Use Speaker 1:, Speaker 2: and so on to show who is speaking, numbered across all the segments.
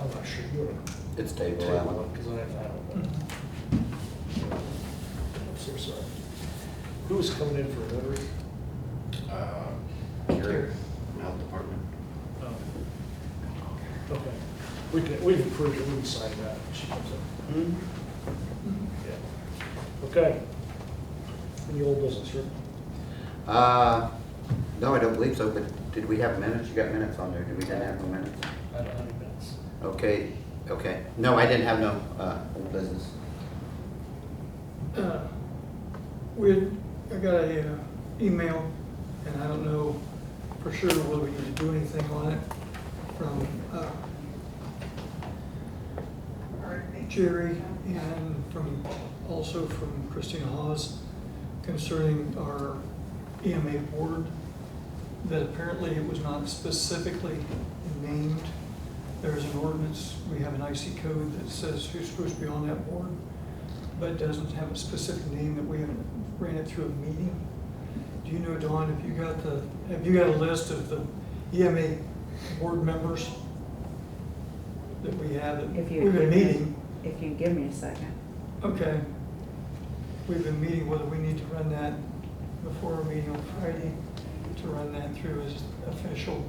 Speaker 1: I'm not sure you are.
Speaker 2: It's Dave Allen.
Speaker 1: Because I have that one. I'm so sorry. Who was coming in for delivery?
Speaker 3: Uh, Gary, from Health Department.
Speaker 1: Oh. Okay. We can, we've approved it, we can sign that. when She comes up. Yeah. Okay. Any old business, Rick?
Speaker 2: Uh, no, I don't believe so, but did we have minutes? You got minutes on there, did we didn't have no minutes?
Speaker 1: I don't have any minutes.
Speaker 2: Okay, okay. No, I didn't have no, uh, old business.
Speaker 4: Uh, We, had- I got a uh, email, and I don't know for sure whether we need to do anything on it, from uh, Jerry and from, also from Christina Hawes concerning our EMA board, that apparently it was not specifically named. There's an ordinance, we have an IC code that says who's supposed to be on that board but doesn't have a specific name that we haven't ran it through a meeting. Do you know, Dawn, if you got the, have you got a list of the EMA board members that we have, that
Speaker 5: If
Speaker 4: we've
Speaker 5: you.
Speaker 4: been
Speaker 5: give me-
Speaker 4: meeting?
Speaker 5: If you give me a second.
Speaker 4: Okay. We've been meeting whether we need to run that before our meeting on Friday, to run that through as official.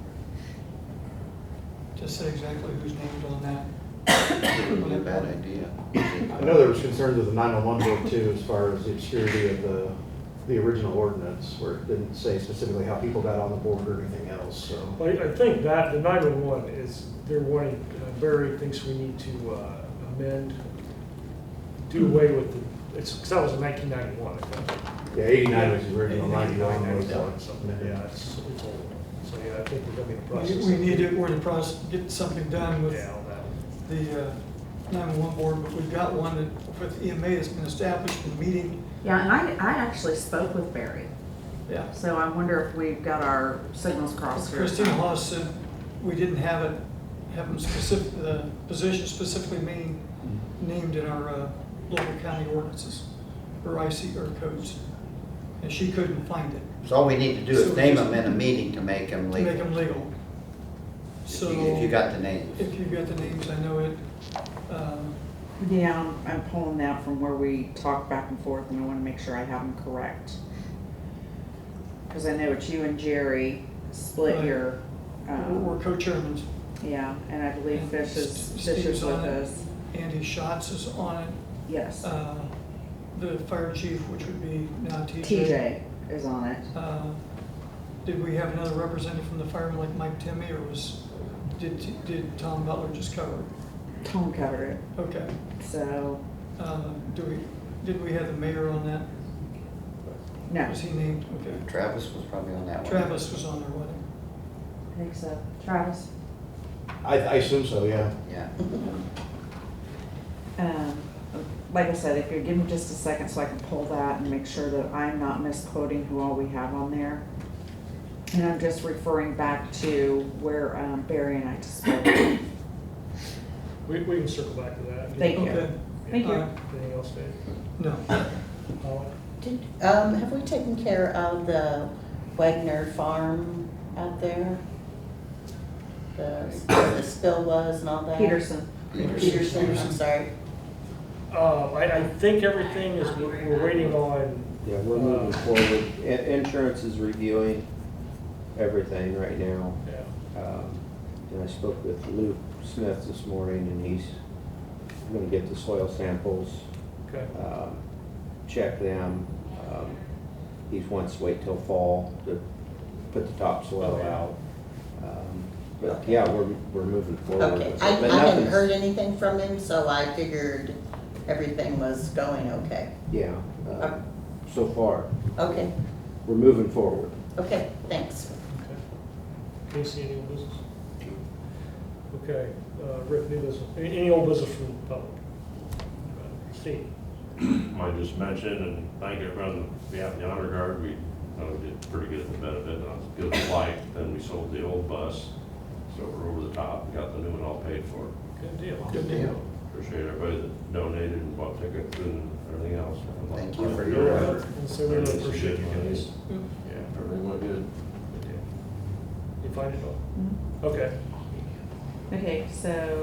Speaker 4: To say exactly who's named on that.
Speaker 2: It would be a bad idea.
Speaker 6: I know there was concerns with the 911 board too, as far as the obscurity of the, the original ordinance, where it didn't say specifically how people got on the board or anything else, so.
Speaker 1: Well, I I think that, the 911 is, they're wanting, uh, Barry thinks we need to uh, amend, do away with the, it's, because that was in 1991, I think.
Speaker 6: Yeah, 89 was the original, 91 was.
Speaker 1: 91, something, yeah,
Speaker 6: uh,
Speaker 1: it's, it's old. So, yeah, I think we're gonna be in the
Speaker 4: We
Speaker 1: process.
Speaker 4: we need to, we're in the process of getting something done with
Speaker 1: Yeah, on that one.
Speaker 4: the uh, 911 board, but we've got one that, with EMA that's been established in the meeting.
Speaker 5: Yeah, and I, I actually spoke with Barry,
Speaker 6: Yeah.
Speaker 5: so I wonder if we've got our signals crossed here.
Speaker 4: Christine Hollis said we didn't have it, have them specific, the position specifically mean, named in our uh, local county ordinances, or IC, or codes. And she couldn't find it,
Speaker 2: So all we need to do is name them in a meeting to make them
Speaker 4: to make them
Speaker 2: legal.
Speaker 4: legal.
Speaker 2: If you-
Speaker 4: So.
Speaker 2: If you got the names.
Speaker 4: If you've got the names, I know it, um,
Speaker 5: Yeah, I'm- I'm pulling that from where we talked back and forth, and I wanna make sure I have them correct. Cause I know it's you and Jerry split
Speaker 4: Right.
Speaker 5: your,
Speaker 4: we're- we're
Speaker 5: um,
Speaker 4: co-chairmans.
Speaker 5: yeah, and I believe Fish is,
Speaker 4: Steve's
Speaker 5: Fish is with
Speaker 4: on it.
Speaker 5: us,
Speaker 4: Andy Schatz is on it.
Speaker 5: yes.
Speaker 4: uh, the fire chief, which would be now TJ.
Speaker 5: TJ is on it.
Speaker 4: TJ. Did we have another representative from the firemen like Mike Timmy, or was, did, did Tom Butler just cover it?
Speaker 5: Tom covered it,
Speaker 4: Okay.
Speaker 5: so,
Speaker 4: Uh, Do we, did we have the mayor on that?
Speaker 5: no,
Speaker 4: Was he named? Okay.
Speaker 2: Travis was probably on that one.
Speaker 4: Travis was on there, wasn't
Speaker 5: I think so. Travis?
Speaker 6: I, I assume so, yeah.
Speaker 2: Yeah.
Speaker 5: Um, Like I said, if you give me just a second so I can pull that and make sure that I'm not misquoting who all we have on there. And I'm just referring back to where um, Barry and I spoke.
Speaker 1: We, we can circle back to that.
Speaker 5: Thank
Speaker 4: he?
Speaker 5: you.
Speaker 4: Okay.
Speaker 5: Thank you.
Speaker 4: Uh,
Speaker 1: Anything else, Dave? Uh,
Speaker 4: No.
Speaker 1: Paula?
Speaker 7: Did, um, have we taken care of the Wagner Farm out there? The, where the spill was and all that?
Speaker 5: Peterson.
Speaker 7: Peterson, I'm sorry.
Speaker 1: Uh, I, I think everything is, we're we're waiting on,
Speaker 8: Yeah, we're moving forward. I- Insurance is reviewing everything right now.
Speaker 1: yeah,
Speaker 8: Um, And I spoke with Luke Smith this morning, and he's gonna get the soil samples,
Speaker 1: okay,
Speaker 8: um, check them. Um, He wants to wait till fall to put the topsoil out. Um, But yeah, we're, we're moving forward.
Speaker 7: Okay,
Speaker 8: with it.
Speaker 7: I,
Speaker 8: But
Speaker 7: I hadn't
Speaker 8: nothing's-
Speaker 7: heard anything from him, so I figured everything was going okay.
Speaker 8: Yeah,
Speaker 7: Uh,
Speaker 8: um, so far,
Speaker 7: Okay,
Speaker 8: we're moving forward.
Speaker 7: okay, thanks.
Speaker 1: okay. Casey, any old business? Okay, uh, Rick, new business, any, any old business from the public? Uh, Steve?
Speaker 9: I just mentioned, and thank everyone on behalf of the honor guard, we, uh, did pretty good at the benefit, not as good as liked, then we sold the old bus, so we're over the top, and got the new one all paid for.
Speaker 1: Good deal.
Speaker 2: Good deal.
Speaker 9: Appreciate everybody that donated and bought tickets and everything else.
Speaker 2: Thank you for
Speaker 1: You're
Speaker 2: your
Speaker 1: welcome.
Speaker 2: effort.
Speaker 1: And so we really appreciate you guys.
Speaker 9: Yeah, everything went good.
Speaker 1: You find it all? Okay.
Speaker 5: Okay, so